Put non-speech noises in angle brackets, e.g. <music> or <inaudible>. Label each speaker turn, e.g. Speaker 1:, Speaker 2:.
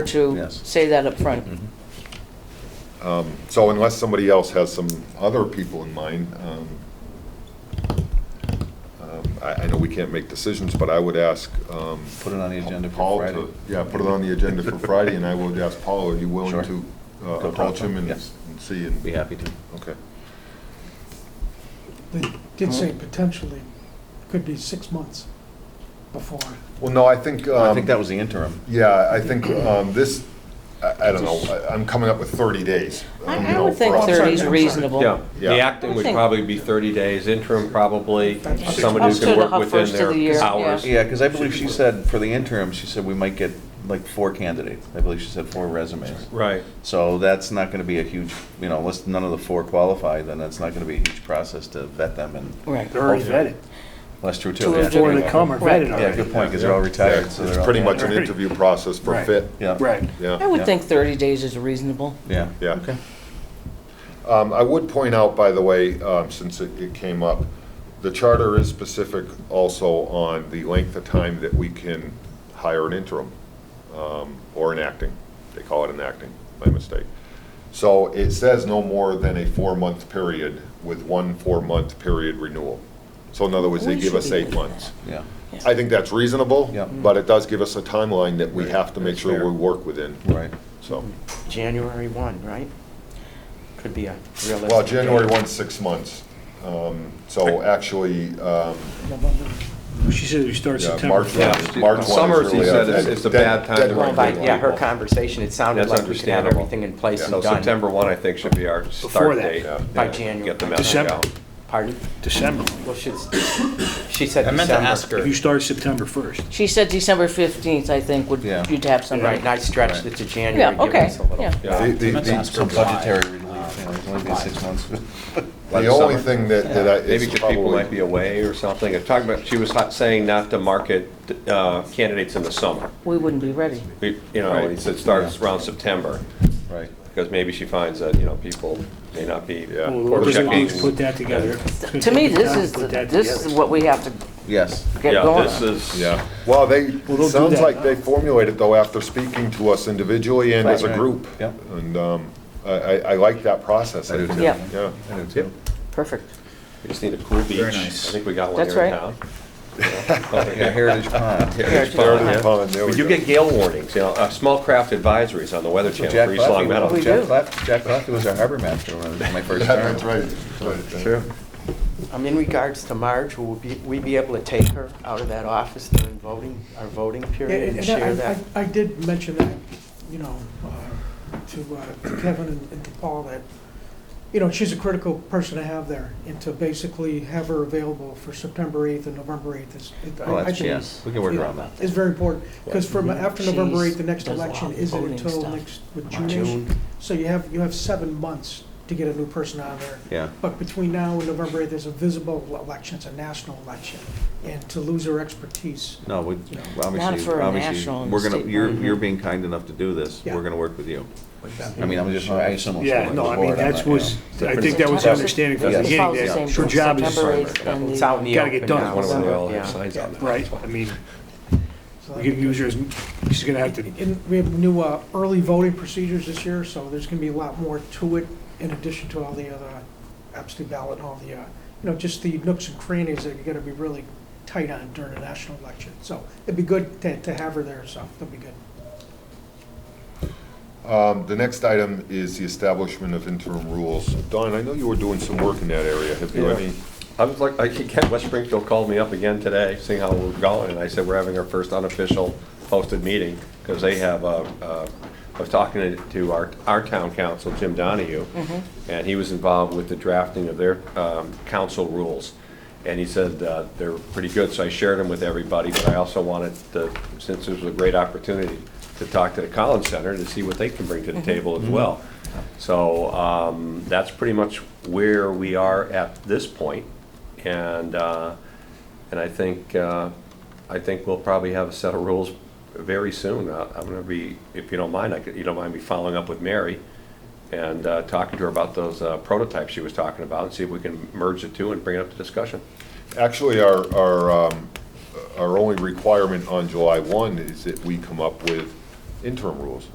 Speaker 1: to
Speaker 2: Yes.
Speaker 1: say that up front.
Speaker 3: Mm-hmm.
Speaker 4: So unless somebody else has some other people in mind, um, um, I, I know we can't make decisions, but I would ask um,
Speaker 2: Put it on the agenda for
Speaker 4: Paul
Speaker 2: Friday.
Speaker 4: to, yeah, put it on the agenda for Friday, and I would ask Paul, are you willing
Speaker 2: Sure.
Speaker 4: to
Speaker 2: Go
Speaker 4: uh,
Speaker 2: talk
Speaker 4: approach
Speaker 2: to him,
Speaker 4: him and
Speaker 2: yes.
Speaker 4: and see? and-
Speaker 2: Be happy to.
Speaker 4: Okay.
Speaker 5: They did say potentially, could be six months before.
Speaker 4: Well, no, I think.
Speaker 2: I
Speaker 4: um,
Speaker 2: think that was the interim.
Speaker 4: Yeah, I think um, this, I I don't know, I- I'm coming up with 30 days. um, you
Speaker 1: I I
Speaker 3: Mm-hmm.
Speaker 4: know,
Speaker 1: would think
Speaker 4: for us.
Speaker 5: I'm sorry,
Speaker 1: 30 is
Speaker 5: I'm sorry.
Speaker 1: reasonable.
Speaker 6: Yeah,
Speaker 4: Yeah.
Speaker 6: the acting would
Speaker 1: I think-
Speaker 6: probably be 30 days, interim probably,
Speaker 5: That's-
Speaker 6: someone who
Speaker 5: Up to
Speaker 6: can
Speaker 5: the
Speaker 6: work
Speaker 1: hu-
Speaker 6: within
Speaker 1: first of the year,
Speaker 6: their
Speaker 1: yeah.
Speaker 6: hours.
Speaker 2: Yeah, because I believe she said, for the interim, she said we might get like four candidates. I believe she said four resumes.
Speaker 6: Right.
Speaker 2: So that's not going to be a huge, you know, unless none of the four qualify, then that's not going to be a huge process to vet them and,
Speaker 1: Right.
Speaker 3: They're already vetted.
Speaker 2: well, that's true too.
Speaker 1: To a
Speaker 2: yeah.
Speaker 1: degree.
Speaker 3: Before they come are
Speaker 1: Right.
Speaker 3: vetted
Speaker 2: Yeah,
Speaker 3: already.
Speaker 2: good point, because they're all retired, so they're
Speaker 4: It's
Speaker 2: all.
Speaker 4: pretty much an
Speaker 3: Right.
Speaker 4: interview process for
Speaker 3: Right.
Speaker 4: fit,
Speaker 2: Yeah,
Speaker 3: Right.
Speaker 4: yeah.
Speaker 1: I would
Speaker 2: Yeah.
Speaker 1: think 30 days is reasonable.
Speaker 2: yeah.
Speaker 4: Yeah.
Speaker 2: Okay.
Speaker 4: Um, I would point out, by the way, um, since it, it came up, the charter is specific also on the length of time that we can hire an interim, um, or an acting. They call it an acting, my mistake. So it says no more than a four-month period with one four-month period renewal. So in other words, they
Speaker 1: We
Speaker 4: give
Speaker 1: should
Speaker 4: us
Speaker 1: be
Speaker 4: eight
Speaker 1: looking at
Speaker 4: months.
Speaker 2: Yeah,
Speaker 1: that.
Speaker 4: I think that's reasonable,
Speaker 2: Yeah.
Speaker 4: but it does give us a timeline that we have to make
Speaker 2: That's
Speaker 4: sure
Speaker 2: fair.
Speaker 4: we work within,
Speaker 2: right.
Speaker 1: Mm-hmm.
Speaker 4: so.
Speaker 3: January 1, right? Could be a realistic.
Speaker 4: Well, January
Speaker 3: date.
Speaker 4: 1's six months. Um, So actually, um,
Speaker 5: November.
Speaker 3: She said we start
Speaker 4: yeah,
Speaker 3: September.
Speaker 4: March 1.
Speaker 6: Yeah.
Speaker 4: March 1 is
Speaker 6: Summer, she
Speaker 4: really
Speaker 6: said, is- is a
Speaker 4: dead-
Speaker 6: bad time to
Speaker 4: deadline
Speaker 7: Well, by,
Speaker 4: for
Speaker 7: yeah, her
Speaker 4: people.
Speaker 7: conversation, it sounded
Speaker 6: That's
Speaker 7: like we could have
Speaker 6: understandable.
Speaker 7: everything in place
Speaker 6: So
Speaker 7: and done
Speaker 6: September 1, I think, should be our
Speaker 3: Before
Speaker 6: start
Speaker 3: that.
Speaker 6: date.
Speaker 4: Yeah.
Speaker 7: by
Speaker 6: Yeah,
Speaker 7: January.
Speaker 6: Get the message
Speaker 3: December.
Speaker 6: out.
Speaker 7: Pardon?
Speaker 3: December.
Speaker 7: Well, she, she said December.
Speaker 8: I meant to ask her.
Speaker 3: If you start September 1st.
Speaker 1: She said December 15th, I think, would,
Speaker 2: Yeah.
Speaker 1: you'd have
Speaker 7: Right,
Speaker 1: somebody.
Speaker 7: and I stretched it to
Speaker 1: Yeah,
Speaker 7: January, giving
Speaker 1: okay,
Speaker 7: us a little.
Speaker 1: yeah.
Speaker 4: The-
Speaker 6: Yeah.
Speaker 4: the-
Speaker 8: Let's ask
Speaker 4: The
Speaker 2: Some
Speaker 8: her why.
Speaker 2: budgetary relief, you know, it's only been six months. <laughs>
Speaker 4: the only thing that, that I-
Speaker 6: Maybe
Speaker 4: is
Speaker 6: because people might be
Speaker 4: probably,
Speaker 6: away or something. I'm Talking about, she was hot- saying not to market uh, candidates in the summer.
Speaker 1: We wouldn't be ready.
Speaker 6: We- You know,
Speaker 2: Right.
Speaker 6: it starts around September,
Speaker 2: Right.
Speaker 6: because maybe she finds that, you know, people may not be.
Speaker 4: Yeah.
Speaker 3: Well,
Speaker 4: Or
Speaker 3: Elizabeth
Speaker 6: checking.
Speaker 3: needs to put that together.
Speaker 1: To me, this is,
Speaker 3: Put that
Speaker 1: this
Speaker 3: together.
Speaker 1: is what we have to
Speaker 2: Yes.
Speaker 1: get
Speaker 6: Yeah,
Speaker 1: going
Speaker 6: this
Speaker 1: on.
Speaker 6: is.
Speaker 4: yeah. Well, they,
Speaker 3: Well, they'll do
Speaker 4: sounds
Speaker 3: that.
Speaker 4: like they formulated though after speaking to us individually and as a
Speaker 2: Right.
Speaker 4: group.
Speaker 2: Yep.
Speaker 4: And um, I, I I like that process.
Speaker 2: I do too.
Speaker 1: Yeah.
Speaker 4: Yeah.
Speaker 2: I do too.
Speaker 1: Perfect.
Speaker 6: We just need a cool beach.
Speaker 8: Very nice.
Speaker 6: I think we got one
Speaker 1: That's
Speaker 6: here in
Speaker 1: right.
Speaker 6: town.
Speaker 2: Yeah, Heritage Pond.
Speaker 1: Heritage
Speaker 6: Pond,
Speaker 1: Pond.
Speaker 6: yeah.
Speaker 4: Pond, there we
Speaker 6: But you
Speaker 4: go.
Speaker 6: get gale warnings, you know, uh, small craft advisories on the Weather
Speaker 2: So
Speaker 6: Channel
Speaker 2: Jack
Speaker 6: for East Long
Speaker 2: Claffey,
Speaker 6: Meadow.
Speaker 1: We
Speaker 2: Jack
Speaker 1: do.
Speaker 2: Claffey, Jack Claffey was our harbor master when I was in
Speaker 3: <laughs>
Speaker 2: my first term.
Speaker 4: That's right. That's right.
Speaker 2: Sure.
Speaker 7: Um, in regards to Marge, will we, we be able to take her out of that office during voting, our voting
Speaker 5: Yeah,
Speaker 7: period and
Speaker 5: And
Speaker 7: share
Speaker 5: I-
Speaker 7: that?
Speaker 5: I- I did mention that, you know, uh, to uh, to Kevin and and to Paul, that, you know, she's a critical person to have there, and to basically have her available for September 8th and November 8th is, it-
Speaker 2: Well,
Speaker 5: I I
Speaker 2: Oh, that's,
Speaker 5: think,
Speaker 2: yeah,
Speaker 5: is
Speaker 2: we can work around that.
Speaker 5: is very important. Because from after
Speaker 1: She's-
Speaker 5: November 8th, the next
Speaker 1: does a lot
Speaker 5: election
Speaker 1: of
Speaker 5: isn't
Speaker 1: voting
Speaker 5: until
Speaker 1: stuff.
Speaker 5: next, with June-ish.
Speaker 7: June,
Speaker 5: So you have, you have seven months to get a new person on there.
Speaker 2: Yeah.
Speaker 5: But between now and November 8th, there's a visible election, it's a national election, and to lose her expertise,
Speaker 2: No, we,
Speaker 1: Not
Speaker 2: obviously,
Speaker 1: for a
Speaker 2: obviously,
Speaker 1: national and
Speaker 2: we're gonna,
Speaker 1: state
Speaker 2: you're,
Speaker 1: one.
Speaker 2: you're being kind enough to do this.
Speaker 5: Yeah.
Speaker 2: We're gonna work with you. I mean, I'm just, I assume. it's
Speaker 3: Yeah,
Speaker 2: going
Speaker 3: no, I
Speaker 2: forward,
Speaker 3: mean,
Speaker 2: I'm
Speaker 3: that
Speaker 2: not, you
Speaker 3: was,
Speaker 2: know.
Speaker 3: I think that was the understanding from the
Speaker 2: Yes.
Speaker 3: beginning,
Speaker 1: Follows the same
Speaker 3: that her
Speaker 1: thing,
Speaker 3: job is,
Speaker 1: September
Speaker 3: right,
Speaker 1: 8th and
Speaker 7: it's
Speaker 1: the-
Speaker 7: out in the
Speaker 3: Gotta
Speaker 7: open now.
Speaker 3: get done.
Speaker 6: One of them, they all
Speaker 7: yeah.
Speaker 6: have signs on there.
Speaker 3: I mean,
Speaker 5: so
Speaker 3: we can use her as, she's gonna have to,
Speaker 5: And we have new uh, early voting procedures this year, so there's going to be a lot more to it in addition to all the other uh, absentee ballot and all the, uh, you know, just the nooks and crannies that you're going to be really tight on during a national election. So it'd be good to to have her there, so that'd be good.
Speaker 4: Um, The next item is the establishment of interim rules. Don, I know you were doing some work in that area. Have you
Speaker 6: Yeah.
Speaker 4: any?
Speaker 6: I was like, I again, West Springfield called me up again today, seeing how we're going, and I said, we're having our first unofficial posted meeting, because they have, uh, uh, I was talking to- to our, our town council, Jim Donahue,
Speaker 1: Mm-hmm.
Speaker 6: and he was involved with the drafting of their um, council rules. And he said uh, they're pretty good, so I shared them with everybody, but I also wanted to, since this was a great opportunity, to talk to the Collins Center to see what they can bring to the table as well. So um, that's pretty much where we are at this point. And, uh, and I think, uh, I think we'll probably have a set of rules very soon. Uh, I'm going to be, if you don't mind, I could- you don't mind me following up with Mary and uh, talking to her about those uh, prototypes she was talking about and see if we can merge the two and bring it up to discussion.
Speaker 4: Actually, our, our, um, our only requirement on July 1 is that we come up with interim rules.